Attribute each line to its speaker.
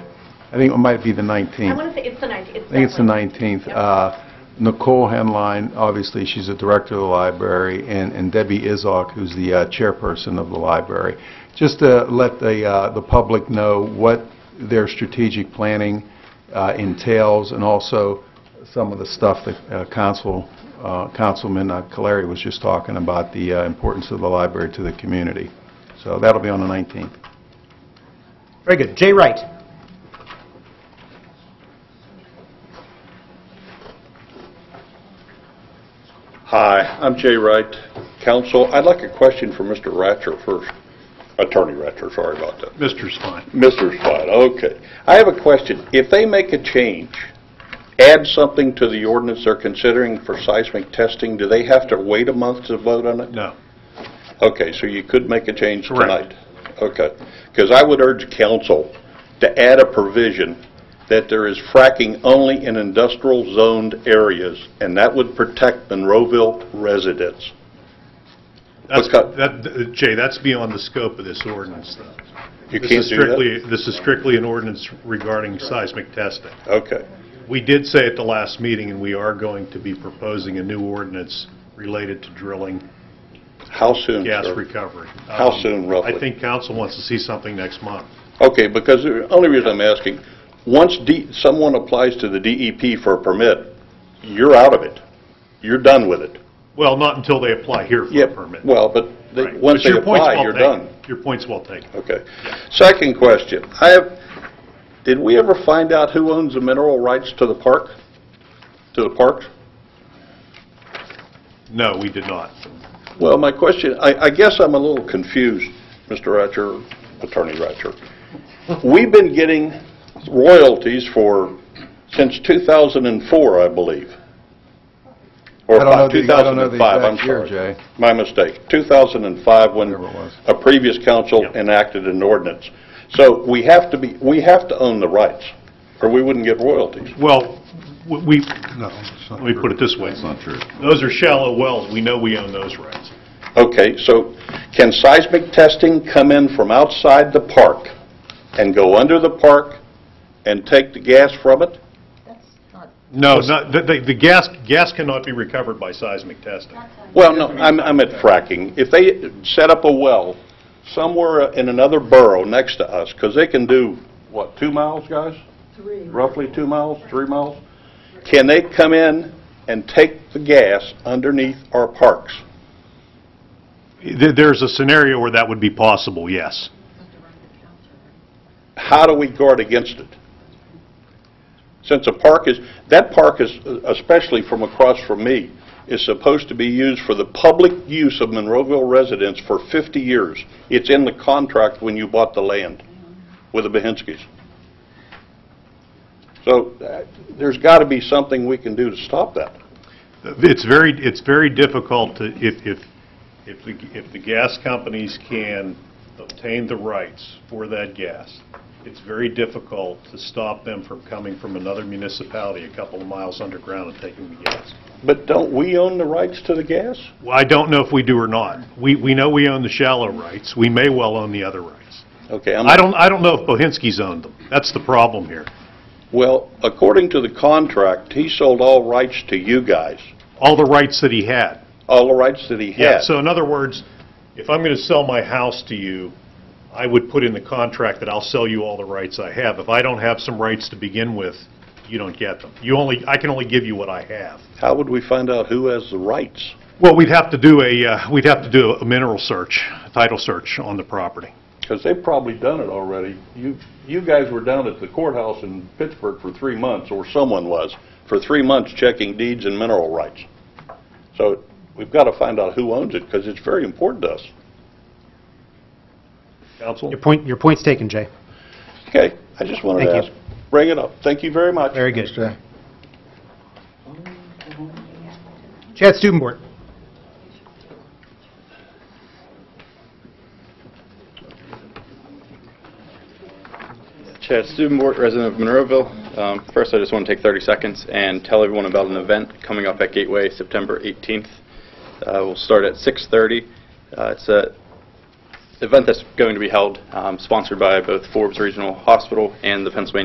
Speaker 1: I think it might be the
Speaker 2: I
Speaker 1: 19th.
Speaker 2: want to say it's the 19th.
Speaker 1: I think it's the 19th. Uh, Nicole Henline, obviously, she's the director of the library, and and Debbie Izok, who's the uh, chairperson of the library. Just to let the, uh, the public know what their strategic planning uh, entails, and also some of the stuff that uh, Council, uh, Councilman uh, Caleri was just talking about, the uh, importance of the library to the community. So that'll be on the 19th.
Speaker 3: Very good. Jay Wright.
Speaker 4: Hi, I'm Jay Wright, counsel. I'd like a question for Mr. Ratcher first. Attorney Ratcher, sorry about that.
Speaker 5: Mr. Swan.
Speaker 4: Mr. Spot, okay. I have a question. If they make a change, add something to the ordinance they're considering for seismic testing, do they have to wait a month to vote on it?
Speaker 5: No.
Speaker 4: Okay, so you could make a change
Speaker 5: Correct.
Speaker 4: tonight? Okay. Because I would urge council to add a provision that there is fracking only in industrial zoned areas, and that would protect Monroeville residents.
Speaker 5: That's,
Speaker 4: Scott.
Speaker 5: that, uh, Jay, that's beyond the scope of this ordinance, though.
Speaker 4: You
Speaker 5: This
Speaker 4: can't
Speaker 5: is
Speaker 4: do that?
Speaker 5: strictly- This is strictly an ordinance regarding seismic testing.
Speaker 4: Okay,
Speaker 5: We did say at the last meeting, and we are going to be proposing a new ordinance related to drilling,
Speaker 4: how soon,
Speaker 5: gas
Speaker 4: sir?
Speaker 5: recovery.
Speaker 4: How
Speaker 5: Um,
Speaker 4: soon, roughly?
Speaker 5: I think council wants to see something next month.
Speaker 4: Okay, because the only reason I'm asking, once D- someone applies to the DEP for a permit, you're out of it. You're done with it.
Speaker 5: Well, not until they apply here for
Speaker 4: Yeah,
Speaker 5: a permit.
Speaker 4: well, but they-
Speaker 5: Right.
Speaker 4: once
Speaker 5: But
Speaker 4: they
Speaker 5: your point's
Speaker 4: apply,
Speaker 5: well
Speaker 4: you're
Speaker 5: taken.
Speaker 4: done.
Speaker 5: Your point's well taken.
Speaker 4: Okay. Second question, I have, did we ever find out who owns the mineral rights to the park? To the park?
Speaker 5: No, we did not.
Speaker 4: Well, my question, I I guess I'm a little confused, Mr. Ratcher, Attorney Ratcher. We've been getting royalties for, since 2004, I believe. Or
Speaker 1: I don't know
Speaker 4: fi-
Speaker 1: the- I don't know the
Speaker 4: 2005, I'm
Speaker 1: exact year,
Speaker 4: sorry.
Speaker 1: Jay.
Speaker 4: My mistake. 2005, when
Speaker 1: Whatever it was.
Speaker 4: a previous council
Speaker 5: Yep.
Speaker 4: enacted an ordinance. So we have to be, we have to own the rights, or we wouldn't get royalties.
Speaker 5: Well, w- we,
Speaker 6: No, it's not
Speaker 5: let me
Speaker 6: true.
Speaker 5: put it this way.
Speaker 6: It's not true.
Speaker 5: Those are shallow wells. We know we own those rights.
Speaker 4: Okay, so can seismic testing come in from outside the park and go under the park and take the gas from it?
Speaker 7: That's not,
Speaker 5: No, not, the- the, the gas, gas cannot be recovered by seismic testing.
Speaker 4: Well, no, I'm, I'm at fracking. If they set up a well somewhere in another borough next to us, because they can do, what, two miles, guys? Three. Roughly two miles, three miles? Can they come in and take the gas underneath our parks?
Speaker 5: There- There's a scenario where that would be possible, yes.
Speaker 4: how do we guard against it? Since a park is, that park is, especially from across from me, is supposed to be used for the public use of Monroeville residents for 50 years. It's in the contract when you bought the land with the Behenskes. So uh, there's got to be something we can do to stop that.
Speaker 5: It's very, it's very difficult to, if, if, if the, if the gas companies can obtain the rights for that gas, it's very difficult to stop them from coming from another municipality a couple of miles underground and taking the gas.
Speaker 4: But don't we own the rights to the gas?
Speaker 5: Well, I don't know if we do or not. We, we know we own the shallow rights. We may well own the other rights.
Speaker 4: Okay, I'm
Speaker 5: I don't, I don't know if Bohinski's owned them. That's the problem here.
Speaker 4: Well, according to the contract, he sold all rights to you guys,
Speaker 5: All the rights that he had.
Speaker 4: all the rights that he had.
Speaker 5: Yeah, so in other words, if I'm going to sell my house to you, I would put in the contract that I'll sell you all the rights I have. If I don't have some rights to begin with, you don't get them. You only, I can only give you what I have.
Speaker 4: How would we find out who has the rights?
Speaker 5: Well, we'd have to do a, uh, we'd have to do a mineral search, a title search on the property.
Speaker 4: Because they've probably done it already. You, you guys were down at the courthouse in Pittsburgh for three months, or someone was, for three months checking deeds and mineral rights. So we've got to find out who owns it, because it's very important to us.
Speaker 5: Counsel?
Speaker 3: Your point, your point's taken, Jay.
Speaker 4: Okay, I just wanted to
Speaker 3: Thank
Speaker 4: ask.
Speaker 3: you.
Speaker 4: Bring it up. Thank you very much.
Speaker 3: Very good.
Speaker 6: Jay.
Speaker 3: Chad Stubenbort.
Speaker 8: Chad Stubenbort, resident of Monroeville. Um, First, I just want to take 30 seconds and tell everyone about an event coming up at Gateway September 18th. Uh, We'll start at 6:30. Uh, It's a event that's going to be held, um, sponsored by both Forbes Regional Hospital and the Pennsylvania